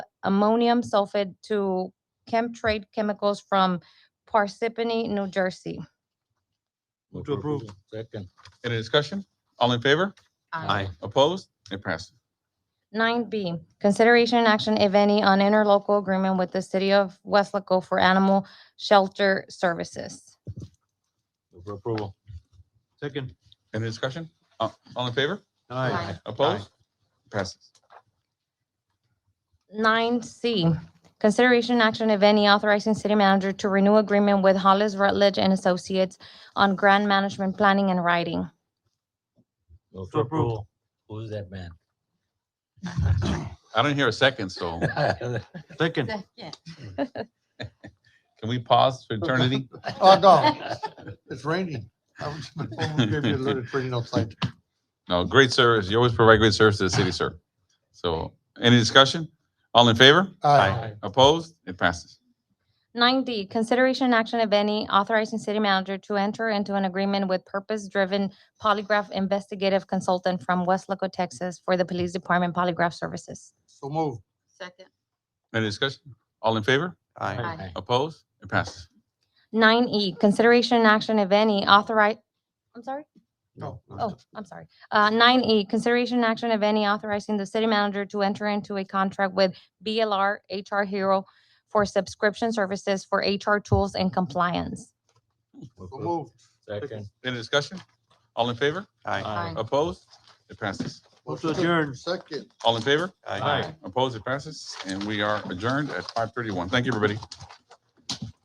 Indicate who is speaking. Speaker 1: ammonium sulfate to Chemtrade Chemicals from Parsippany, New Jersey.
Speaker 2: Move to approve.
Speaker 3: Second.
Speaker 2: Any discussion? All in favor?
Speaker 3: Aye.
Speaker 2: Opposed? It passes.
Speaker 1: Nine B, consideration and action, if any, on interlocal agreement with the city of Westlaco for animal shelter services.
Speaker 3: Move for approval. Second.
Speaker 2: Any discussion? Uh, All in favor?
Speaker 1: Aye.
Speaker 2: Opposed? Passes.
Speaker 1: Nine C, consideration and action, if any, authorizing city manager to renew agreement with Hollis Rutledge and Associates on grant management planning and writing.
Speaker 3: Move
Speaker 2: To
Speaker 3: for
Speaker 2: approve.
Speaker 3: approval. Who's that man?
Speaker 2: I don't hear a second, so
Speaker 3: Second.
Speaker 2: can we pause for eternity?
Speaker 4: Oh, no, it's raining. I was gonna give you a little raining outside.
Speaker 2: No, great service. You always provide great service to the city, sir. So any discussion? All in favor?
Speaker 4: Aye.
Speaker 2: Opposed? It passes.
Speaker 1: Nine D, consideration and action, if any, authorizing city manager to enter into an agreement with purpose-driven polygraph investigative consultant from Westlaco, Texas for the police department polygraph services.
Speaker 4: So move.
Speaker 5: Second.
Speaker 2: Any discussion? All in favor?
Speaker 3: Aye.
Speaker 2: Opposed? It passes.
Speaker 1: Nine E, consideration and action, if any, authorize, I'm sorry?
Speaker 4: No.
Speaker 1: Oh, I'm sorry. Uh, nine E, consideration and action, if any, authorizing the city manager to enter into a contract with BLR HR Hero for subscription services for HR tools and compliance.
Speaker 3: Move
Speaker 4: So
Speaker 3: for-
Speaker 4: move.
Speaker 3: Second.
Speaker 2: Any discussion? All in favor?
Speaker 5: Aye.
Speaker 2: Opposed? It passes.
Speaker 3: Move to adjourn.
Speaker 4: Second.
Speaker 2: All in favor?
Speaker 3: Aye.
Speaker 2: Opposed? It passes. And we are adjourned at five thirty-one. Thank you, everybody.